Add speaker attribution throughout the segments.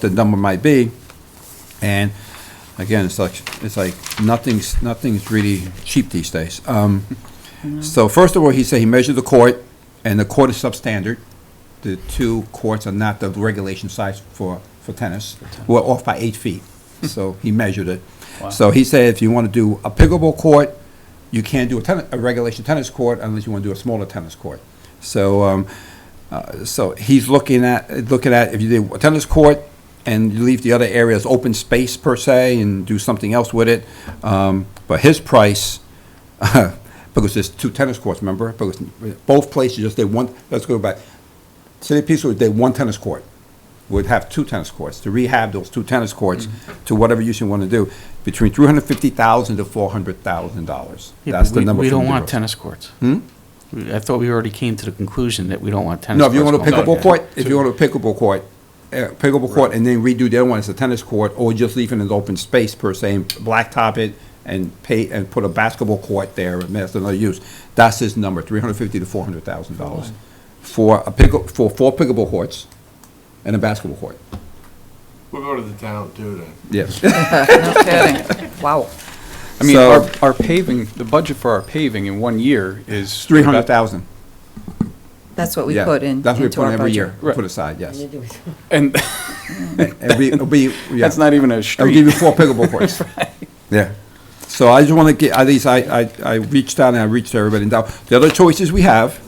Speaker 1: the number might be. And again, it's like, it's like nothing's, nothing's really cheap these days. Um, So first of all, he said he measured the court and the court is substandard. The two courts are not the regulation size for, for tennis. We're off by eight feet. So he measured it.
Speaker 2: Wow.
Speaker 1: So he said if you want to do a pickleball court, you can't do a tennis, a regulation tennis court unless you want to do a smaller tennis court. So, um, uh, so he's looking at, looking at if you do a tennis court and you leave the other area as open space per se and do something else with it. Um, but his price, because there's two tennis courts, remember? Because both places just, they want, let's go back. City of Peaceville, they one tennis court, would have two tennis courts, to rehab those two tennis courts
Speaker 2: Mm-hmm.
Speaker 1: to whatever use you want to do, between three hundred fifty thousand to four hundred thousand dollars.
Speaker 2: Yeah,
Speaker 1: That's
Speaker 2: but
Speaker 1: the
Speaker 2: we-
Speaker 1: number.
Speaker 2: We
Speaker 1: from
Speaker 2: don't
Speaker 1: the
Speaker 2: want
Speaker 1: Bureau.
Speaker 2: tennis courts.
Speaker 1: Hmm?
Speaker 2: We- I thought we already came to the conclusion that we don't want tennis
Speaker 1: No, if
Speaker 2: courts.
Speaker 1: you want a
Speaker 2: going
Speaker 1: pickleball
Speaker 2: up.
Speaker 1: court, if you want a pickleball court, uh, pickleball court, and then redo the other one as a tennis court, or just leave it as open space per se, and blacktop it, and pay, and put a basketball court there, and that's another use. That's his number, three hundred fifty to four hundred thousand dollars for a pickle, for four pickleball courts and a basketball court.
Speaker 3: We'll go to the town too then.
Speaker 1: Yes.
Speaker 4: Wow.
Speaker 5: I mean,
Speaker 1: So-
Speaker 5: our, our paving, the budget for our paving in one year is.
Speaker 1: Three hundred thousand.
Speaker 4: That's what we put in,
Speaker 1: That's what we
Speaker 4: into
Speaker 1: put in
Speaker 4: our
Speaker 1: every
Speaker 4: budget.
Speaker 1: year,
Speaker 5: Right.
Speaker 1: put aside, yes.
Speaker 5: And
Speaker 1: And we, it'll be, yeah.
Speaker 5: that's not even a
Speaker 1: I'll give
Speaker 5: street.
Speaker 1: you four pickleball courts. Yeah. So I just want to get, at least I, I, I reached out and I reached everybody now. The other choices we have,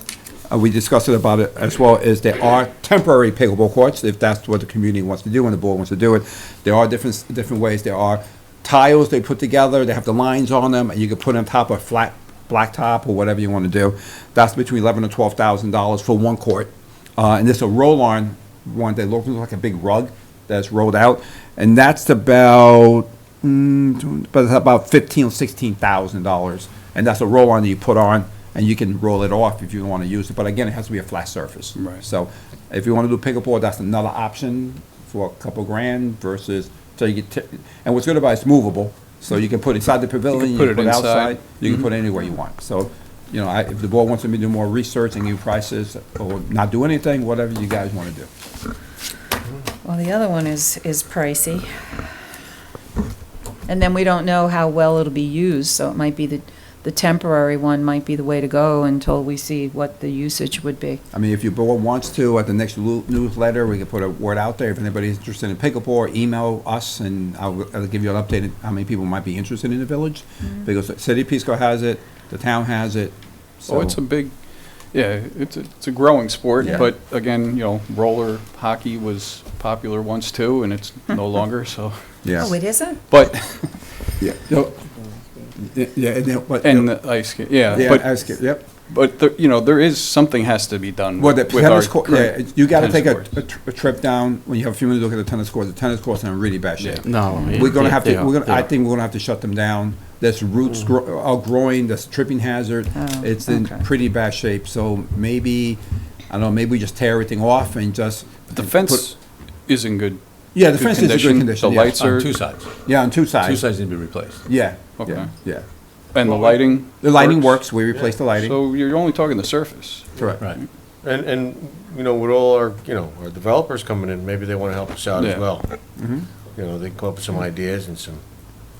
Speaker 1: uh, we discussed it about it as well, is there are temporary pickleball courts, if that's what the community wants to do and the board wants to do it. There are different, different ways. There are tiles they put together, they have the lines on them, and you can put on top of flat blacktop or whatever you want to do. That's between eleven and twelve thousand dollars for one court. Uh, and there's a roll-on one that looks like a big rug that's rolled out, and that's about, mm, but it's about fifteen, sixteen thousand dollars. And that's a roll-on that you put on, and you can roll it off if you want to use it, but again, it has to be a flat surface.
Speaker 5: Right.
Speaker 1: So if you want to do pickleball, that's another option for a couple grand versus, so you get, t- and what's good about it's movable, so you can put inside the pavilion, you
Speaker 5: put
Speaker 1: can
Speaker 5: it
Speaker 1: put
Speaker 5: inside. Mm-hmm.
Speaker 1: outside, you can put it anywhere you want. So, you know, I, if the board wants me to do more research and give prices, or not do anything, whatever you guys want to do.
Speaker 4: Well, the other one is, is pricey. And then we don't know how well it'll be used, so it might be the, the temporary one might be the way to go until we see what the usage would be.
Speaker 1: I mean, if your board wants to, at the next lu- newsletter, we can put a word out there. If anybody's interested in pickleball, email us, and I'll, I'll give you an update on how many people might be interested in the village.
Speaker 4: Mm-hmm.
Speaker 1: Because the City of Pisco has it, the town has it, so.
Speaker 5: Oh, it's a big, yeah, it's, a- it's a growing sport,
Speaker 1: Yeah.
Speaker 5: but again, you know, roller hockey was popular once too, and it's no longer, so.
Speaker 4: Oh, it isn't?
Speaker 5: But,
Speaker 1: Yeah. No. Yeah, yeah, and then, but.
Speaker 5: and the ice, ca- yeah,
Speaker 1: Yeah,
Speaker 5: but,
Speaker 1: ice skate, yep.
Speaker 5: but, there- you know, there is, something has to be done
Speaker 1: Well,
Speaker 5: with
Speaker 1: the
Speaker 5: our
Speaker 1: tennis court, yeah,
Speaker 5: current
Speaker 1: you gotta
Speaker 5: tennis
Speaker 1: take a,
Speaker 5: courts.
Speaker 1: a tr- a trip down, when you have a few minutes, look at the tennis courts. The tennis courts are in really bad shape.
Speaker 2: No. yeah,
Speaker 1: We're gonna have
Speaker 2: they
Speaker 1: to,
Speaker 2: are,
Speaker 1: we're gonna,
Speaker 2: they
Speaker 1: I
Speaker 2: are.
Speaker 1: think we're gonna have to shut them down. There's roots grow, are growing, there's tripping hazard.
Speaker 4: Oh,
Speaker 1: It's in
Speaker 4: okay.
Speaker 1: pretty bad shape, so maybe, I don't know, maybe we just tear everything off and just.
Speaker 5: The
Speaker 1: put-
Speaker 5: fence is in good.
Speaker 1: Yeah, the fence is in good condition,
Speaker 5: The
Speaker 1: yeah.
Speaker 5: lights are,
Speaker 6: On two sides.
Speaker 1: Yeah, on two
Speaker 6: Two
Speaker 1: sides.
Speaker 6: sides need to be replaced.
Speaker 1: Yeah,
Speaker 5: Okay.
Speaker 1: yeah, yeah.
Speaker 5: and the lighting.
Speaker 1: The lighting works, we replaced the lighting,
Speaker 5: So you're only talking the surface.
Speaker 1: correct.
Speaker 6: Right.
Speaker 3: And, and, you know, with all our, you know, our developers coming in, maybe they want to help us out as
Speaker 5: Yeah.
Speaker 3: well.
Speaker 2: Mm-hmm.
Speaker 3: You know, they come up with some ideas and some,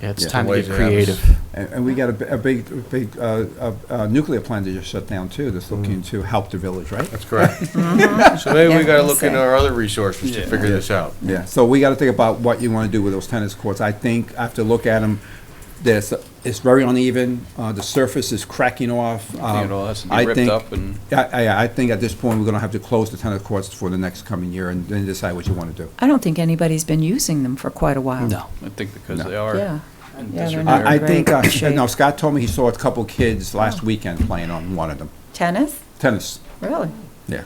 Speaker 2: Yeah, it's
Speaker 1: Yeah.
Speaker 2: time to
Speaker 3: Ways
Speaker 2: get
Speaker 3: to have us-
Speaker 2: creative.
Speaker 1: And, and we got a, b- a big, a big, uh, uh, uh, nuclear plant that just shut down too, that's
Speaker 5: Mm.
Speaker 1: looking to help the village, right?
Speaker 3: that's correct. So maybe we
Speaker 4: Yeah,
Speaker 3: got to
Speaker 4: I'm
Speaker 3: look into
Speaker 4: saying.
Speaker 3: our other resources to
Speaker 5: Yeah.
Speaker 3: figure this out.
Speaker 1: Yeah, so we gotta think about what you wanna do with those tennis courts. I think, I have to look at them, there's, it's very uneven, uh, the surface is cracking off. um,
Speaker 5: I think it all has to be ripped up and.
Speaker 1: I, I, I think at this point, we're gonna have to close the tennis courts for the next coming year and then decide what you wanna do.
Speaker 4: I don't think anybody's been using them for quite a while.
Speaker 2: No.
Speaker 5: I think because
Speaker 1: No.
Speaker 5: they are.
Speaker 4: Yeah. Yeah, they're not
Speaker 1: I, I
Speaker 4: in
Speaker 1: think, uh,
Speaker 4: great shape.
Speaker 1: no, Scott told me he saw a couple kids last weekend playing on one of them,
Speaker 4: Tennis?
Speaker 1: tennis,
Speaker 4: Really?
Speaker 1: yeah.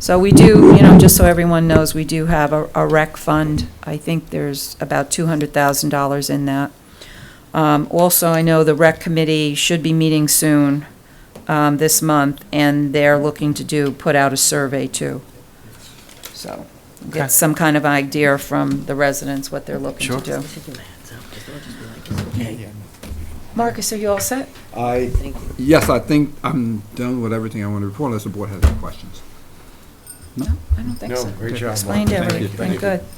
Speaker 4: So we do, you know, just so everyone knows, we do have a, a rec fund. I think there's about two hundred thousand dollars in that. Um, also, I know the rec committee should be meeting soon, um, this month, and they're looking to do, put out a survey too. So, get some kind of idea from the residents what they're looking to do. Marcus, are you all set?
Speaker 1: I, yes, I think I'm done with everything I wanna report unless the board has any questions.
Speaker 4: No, I don't think
Speaker 3: No,
Speaker 4: so.
Speaker 3: great job,
Speaker 4: Explained
Speaker 3: Mark. Thank you.
Speaker 4: everything, good.